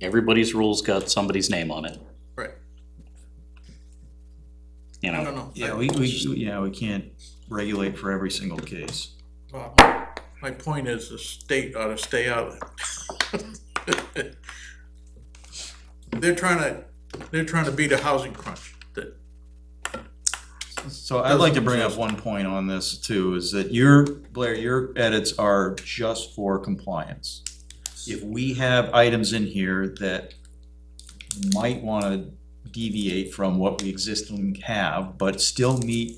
Everybody's rule's got somebody's name on it, Right, you I know? don't know. Yeah, we, we, yeah, we can't regulate for every single case. Well, uh, My point is the state ought to stay out of it. They're trying to, they're trying to beat a housing crunch that, So I'd like to bring up one point on this too, is that your, Blair, your edits are just for compliance. If we have items in here that might wanna deviate from what we existing have, but still meet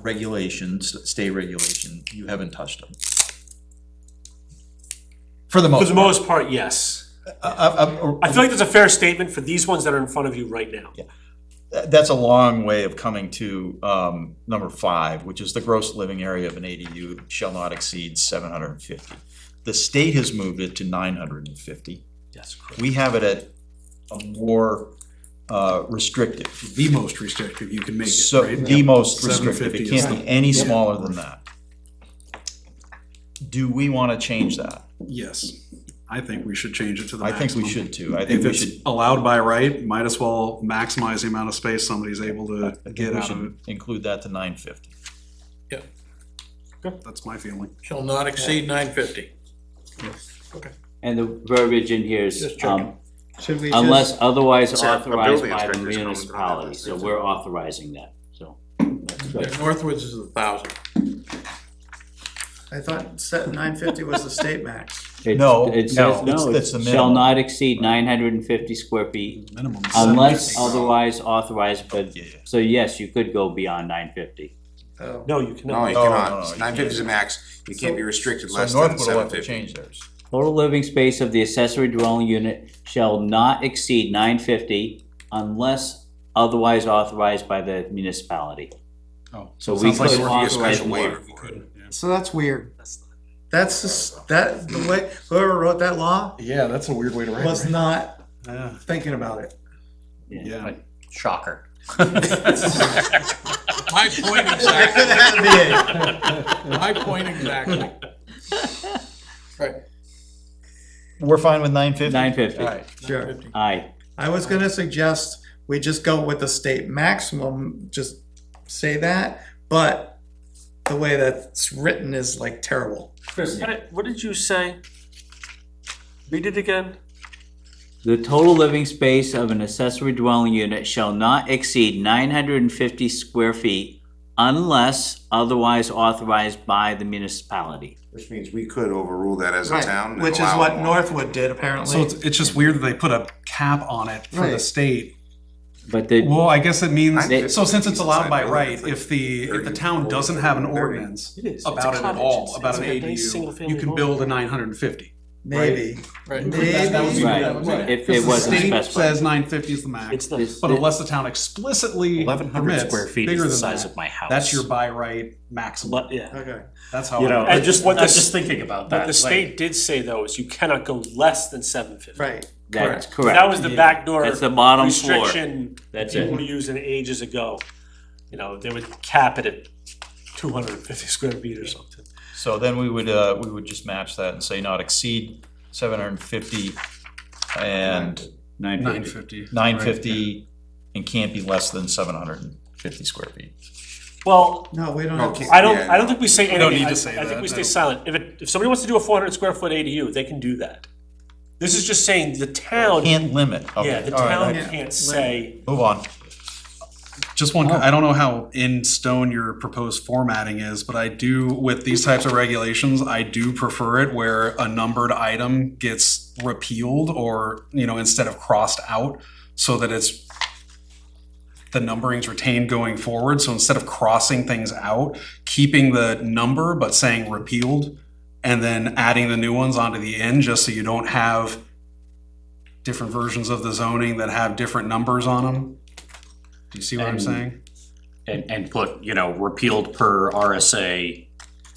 regulations, state regulation, you haven't touched them. For the For most the part. most part, yes. I- I- I- I feel like that's a fair statement for these ones that are in front of you right now. Th- That's a long way of coming to um, number five, which is the gross living area of an ADU shall not exceed seven hundred and fifty. The state has moved it to nine hundred and fifty. Yes. We have it at a more uh, restrictive, the most restrictive you can make it, so right? the most restrictive. 750 It is can't fine. be any smaller than that. Do we want to change that? Yes, I think we should change it to the I think maximum. we should too. I think If we it's should. allowed by right, might as well maximize the amount of space somebody's able to I think get we out of should Include that to nine fifty. it. That's my feeling. shall not exceed nine fifty. And the verbiage in here is, Just um, checking. Should we unless just, otherwise It's a- a authorized building by the inspector is coming to the municipality, office. so we're authorizing that, so. Northwoods is a thousand. I thought set nine fifty was the state max. It's- No, It no, says, it's- no, that's the it shall minimum. not exceed nine hundred and fifty square feet Minimum. unless 750. otherwise authorized, but, Yeah, yeah. so yes, you could go beyond nine fifty. Oh, No, you No, you No, cannot. no, no, cannot. you Nine fifty is the can't. max. You can't be restricted So less than Northwood will seven have to fifty. change theirs. Total living space of the accessory dwelling unit shall not exceed nine fifty unless otherwise authorized by the municipality. Oh. So we Sounds like could we're- Need a authorize special more. waiver for it. so that's weird. That's just, that, the way, whoever wrote that law Yeah, that's a weird way to write was it. not Yeah, thinking about it. Yeah. Shocker. My point exactly, my point exactly. Right, We're fine with nine fifty? Nine fifty, All right. Sure. aye. I was gonna suggest we just go with the state maximum, just say that, but the way that's written is like terrible. Chris, what did- what did you say? Read it again. The total living space of an accessory dwelling unit shall not exceed nine hundred and fifty square feet unless otherwise authorized by the municipality. Which means we could overrule that as a town. and Which is allow what more. Northwood did apparently. so it's, it's just weird that they put a cap on it for the Right. state. But the, Well, I guess it means, They- so since it's allowed by right, if the, if the town doesn't have an ordinance It is. about it at all, about an ADU, you can build a nine hundred and fifty. Maybe. right. Maybe. That would be- right, that would be- if it Because the wasn't state specified. says nine fifty is the max, It's not. This- but unless the town explicitly Eleven hundred permits square feet is bigger the than size of that, my house. that's your buy right maximum. But, yeah. Okay. That's how. You know, And just Uh, what I'm the- just thinking about that. What the like- state did say though is you cannot go less than seven fifty. Right. That's That correct. was the backdoor That's the bottom floor. restriction That's people were it. using ages ago. You know, they would cap it at two hundred and fifty square feet or something. So then we would, uh, we would just match that and say not exceed seven hundred and fifty and Nine Nine fifty. fifty. nine fifty and can't be less than seven hundred and fifty square feet. Well, No, we don't No, have. can't- I don't, yeah, I don't think we say We don't anything, need I, to say I think that, we no. stay silent, if it, if somebody wants to do a four hundred square foot ADU, they can do that. This is just saying the town, yeah, Can't limit, okay, the all town right, Yeah. can't say, move on. Just one, I don't know how in stone your proposed formatting is, but I do, with these types of regulations, I do prefer it where a numbered item gets repealed or, you know, instead of crossed out, so that it's, the numbering's retained going forward, so instead of crossing things out, keeping the number but saying repealed, and then adding the new ones onto the end, just so you don't have different versions of the zoning that have different numbers on them. Do you see what I'm And- saying? And, and put, you know, repealed per RSA,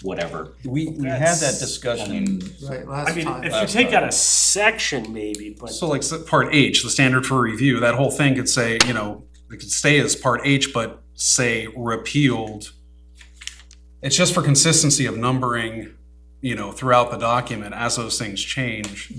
whatever. We, we had That's- that discussion, Right, I last mean, time. if you take out a section maybe, but. So like s- part H, the standard for review, that whole thing could say, you know, it could stay as part H, but say repealed. It's just for consistency of numbering, you know, throughout the document as those things change.